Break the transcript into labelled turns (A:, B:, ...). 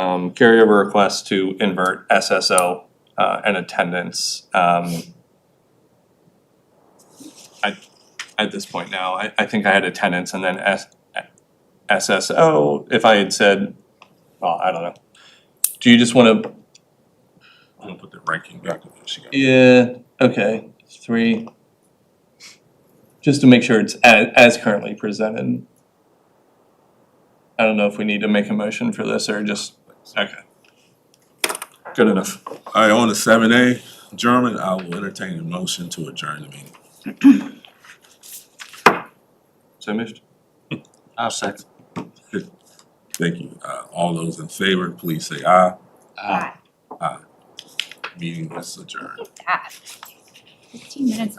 A: um, carryover request to invert SSO uh, and attendance. Um, I, at this point now, I, I think I had attendance and then S, SSO, if I had said, well, I don't know. Do you just wanna
B: I'm gonna put the ranking back in there, she got.
A: Yeah, okay, three. Just to make sure it's as, as currently presented. I don't know if we need to make a motion for this or just, okay. Good enough.
B: Alright, on the seven A, German, I will entertain a motion to adjourn the meeting.
A: So moved.
C: I'll second.
B: Thank you. Uh, all those in favor, please say aye.
C: Aye.
B: Meeting is adjourned.
D: Ah. Fifteen minutes